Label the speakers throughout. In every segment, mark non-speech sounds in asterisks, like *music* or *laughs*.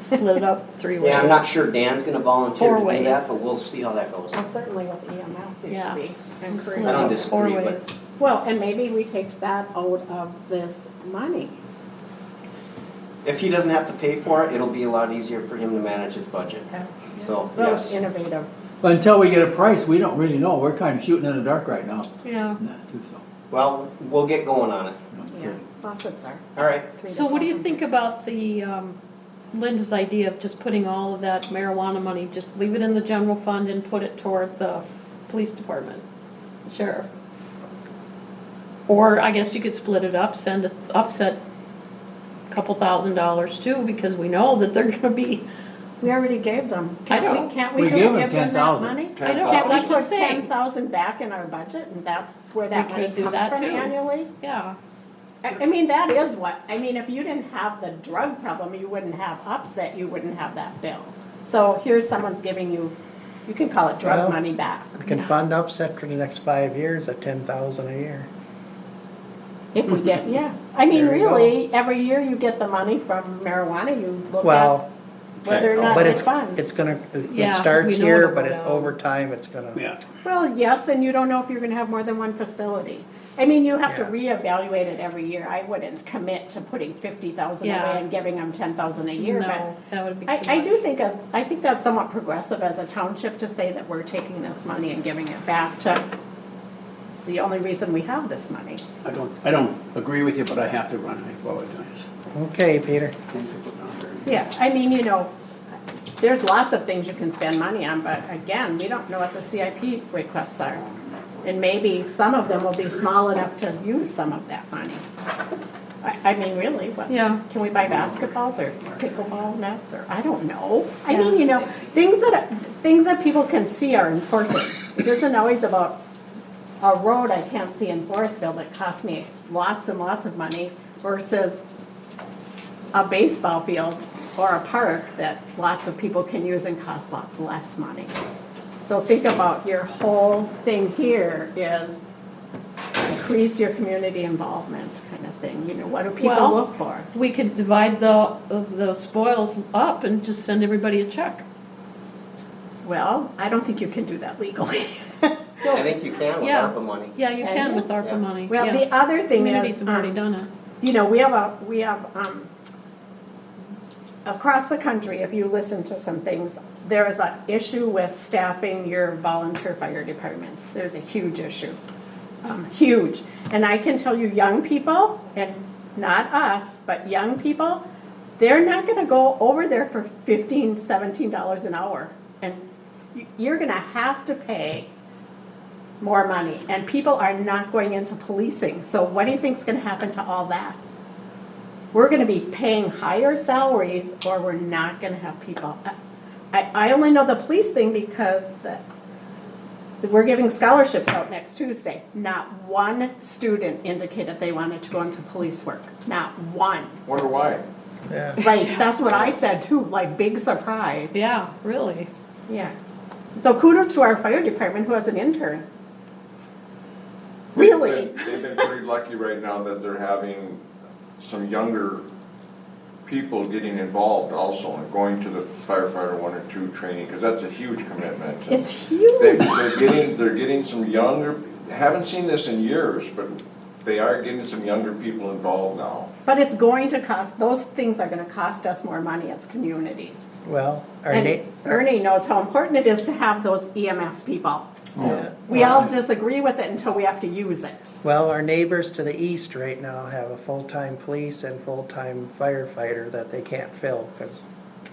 Speaker 1: split it up three ways.
Speaker 2: Yeah, I'm not sure Dan's gonna volunteer
Speaker 1: Four
Speaker 2: to do
Speaker 1: ways.
Speaker 2: that, but we'll see how that goes.
Speaker 3: Well, certainly E with EMS, it
Speaker 1: Yeah.
Speaker 3: should be
Speaker 2: I don't
Speaker 3: encouraged.
Speaker 1: Split it up four
Speaker 2: disagree, but-
Speaker 1: ways.
Speaker 3: Well, and maybe we take that out of this money.
Speaker 2: If he doesn't have to pay for it, it'll be a lot easier for him to manage his budget. So,
Speaker 3: Well, it's
Speaker 2: yes.
Speaker 3: innovative.
Speaker 4: Until we get a price, we don't really know. We're kind of shooting in the dark right now.
Speaker 1: Yeah.
Speaker 4: on that, too, so,
Speaker 2: Well, we'll get going on it.
Speaker 4: you
Speaker 3: Yeah,
Speaker 4: know.
Speaker 3: faucets are.
Speaker 2: All right.
Speaker 3: three to
Speaker 1: So what do you
Speaker 3: 400.
Speaker 1: think about the, um, Linda's idea of just putting all of that marijuana money, just leave it in the general fund and put it toward the police department, sheriff? Or I guess you could split it up, send, it upset a couple thousand dollars too, because we know that they're gonna be,
Speaker 3: We already gave them.
Speaker 1: I
Speaker 3: Can't we-
Speaker 1: know.
Speaker 3: Can't we
Speaker 4: We
Speaker 3: just
Speaker 4: gave
Speaker 3: give
Speaker 4: them
Speaker 3: them that
Speaker 4: 10,000.
Speaker 3: money?
Speaker 1: I know,
Speaker 3: Can't
Speaker 1: I'm
Speaker 3: we put
Speaker 1: just
Speaker 3: ten
Speaker 1: saying,
Speaker 3: thousand back in our budget and that's where that
Speaker 1: We
Speaker 3: money
Speaker 1: could do
Speaker 3: comes
Speaker 1: that
Speaker 3: from
Speaker 1: too.
Speaker 3: annually?
Speaker 1: yeah.
Speaker 3: I, I mean, that is what, I mean, if you didn't have the drug problem, you wouldn't have upset, you wouldn't have that bill. So here's someone's giving you, you can call it drug
Speaker 5: Well-
Speaker 3: money back.
Speaker 5: We can fund upset for the next five years at ten thousand a year.
Speaker 3: If we get, yeah, I mean,
Speaker 5: There you go.
Speaker 3: really, every year you get the money from marijuana, you look at
Speaker 5: Well,
Speaker 3: whether or not
Speaker 5: but
Speaker 3: it
Speaker 5: it's, it's
Speaker 3: funds.
Speaker 5: gonna,
Speaker 1: Yeah,
Speaker 5: it starts
Speaker 1: we know
Speaker 5: here,
Speaker 1: it'll
Speaker 5: but
Speaker 1: go
Speaker 5: it,
Speaker 1: down.
Speaker 5: over time, it's gonna.
Speaker 4: Yeah.
Speaker 3: Well, yes, and you don't know if you're gonna have more than one facility. I mean, you have to reevaluate it every year, I wouldn't commit to putting fifty thousand
Speaker 1: Yeah.
Speaker 3: away and giving them ten thousand a year, but.
Speaker 1: No, that would be. too
Speaker 3: I, I
Speaker 1: much.
Speaker 3: do think as, I think that's somewhat progressive as a township to say that we're taking this money and giving it back to the only reason we have this money.
Speaker 4: I don't, I don't agree with you, but I have to run. I apologize.
Speaker 5: Okay, Peter.
Speaker 4: Things are putting on there.
Speaker 3: Yeah. I mean, you know, there's lots of things you can spend money on, but again, we don't know what the CIP requests are. And maybe some of them will be small enough to use some of that money. I, I mean, really, what?
Speaker 1: Yeah.
Speaker 3: Can we buy basketballs or pickleball nets or, I don't know. I mean, you know, things that, things that people can see are important. It isn't always about a road I can't see in Forestville that cost me lots and lots of money versus a baseball field or a park that lots of people can use and costs lots less money. So think about your whole thing here is increase your community involvement kind of thing. You know, what do people
Speaker 1: Well-
Speaker 3: look for?
Speaker 1: We could divide the, the spoils up and just send everybody a check.
Speaker 3: Well, I don't think you can do that legally. *laughs*
Speaker 2: I think you can with
Speaker 1: Yeah.
Speaker 2: ARPA money.
Speaker 1: Yeah, you can with
Speaker 2: Yeah.
Speaker 1: ARPA money.
Speaker 3: Well,
Speaker 1: yeah.
Speaker 3: the other thing
Speaker 1: Communities
Speaker 3: is,
Speaker 1: have already
Speaker 3: um,
Speaker 1: done it.
Speaker 3: you know, we have a, we have, um, across the country, if you listen to some things, there is an issue with staffing your volunteer fire departments. There's a huge issue, um, huge. And I can tell you, young people, and not us, but young people, they're not gonna go over there for fifteen, seventeen dollars an hour. And you- you're gonna have to pay more money, and people are not going into policing, so what do you think's gonna happen to all that? We're gonna be paying higher salaries, or we're not gonna have people. I, I only know the police thing because the, we're giving scholarships out next Tuesday. Not one student indicated they wanted to go into police work, not one.
Speaker 6: Wonder why?
Speaker 5: Yeah.
Speaker 3: Right, that's what I said too, like, big surprise.
Speaker 1: Yeah, really.
Speaker 3: Yeah. So kudos to our fire department who has an intern. Really?
Speaker 6: They've been- They've been pretty lucky right now that they're having some younger people getting involved also and going to the firefighter one or two training, because that's a huge commitment.
Speaker 3: It's
Speaker 6: They,
Speaker 3: huge.
Speaker 6: they're getting, they're getting some younger, haven't seen this in years, but they are getting some younger people involved now.
Speaker 3: But it's going to cost, those things are gonna cost us more money as communities.
Speaker 5: Well, our
Speaker 3: And
Speaker 5: na-
Speaker 3: Ernie knows how important it is to have those EMS people.
Speaker 5: yeah.
Speaker 3: We all disagree with it until we have to use it.
Speaker 5: Well, our neighbors to the east right now have a full-time police and full-time firefighter that they can't fill, cause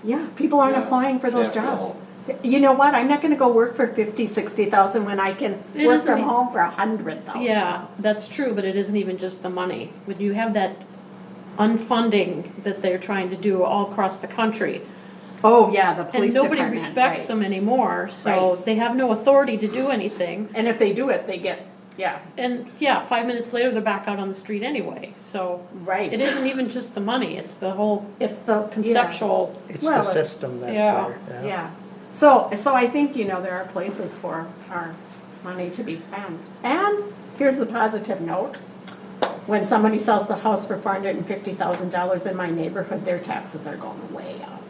Speaker 3: Yeah, people aren't
Speaker 6: Yeah,
Speaker 3: applying for those
Speaker 6: can't go
Speaker 3: jobs. You know what, I'm not gonna go work for fifty, sixty thousand when I can
Speaker 1: It
Speaker 3: work
Speaker 1: isn't
Speaker 3: from
Speaker 1: e-
Speaker 3: home for a hundred thousand.
Speaker 1: Yeah, that's true, but it isn't even just the money. But you have that unfunding that they're trying to do all across the country.
Speaker 3: Oh, yeah, the
Speaker 1: And
Speaker 3: police
Speaker 1: nobody
Speaker 3: department,
Speaker 1: respects
Speaker 3: right.
Speaker 1: them anymore, so
Speaker 3: Right.
Speaker 1: they have no authority to do anything.
Speaker 3: And if they do it, they get, yeah,
Speaker 1: And yeah, five minutes later, they're back out on the street anyway, so.
Speaker 3: right.
Speaker 1: It isn't even just the money, it's the whole
Speaker 3: It's the yeah.
Speaker 1: conceptual
Speaker 5: it's
Speaker 3: Well,
Speaker 5: the
Speaker 3: it's-
Speaker 5: system that's
Speaker 1: yeah,
Speaker 5: there.
Speaker 3: Yeah, so, so I think, you know, there are places for our money to be spent. And here's the positive note, when somebody sells the house for four hundred and fifty thousand dollars in my neighborhood, their taxes are going way up.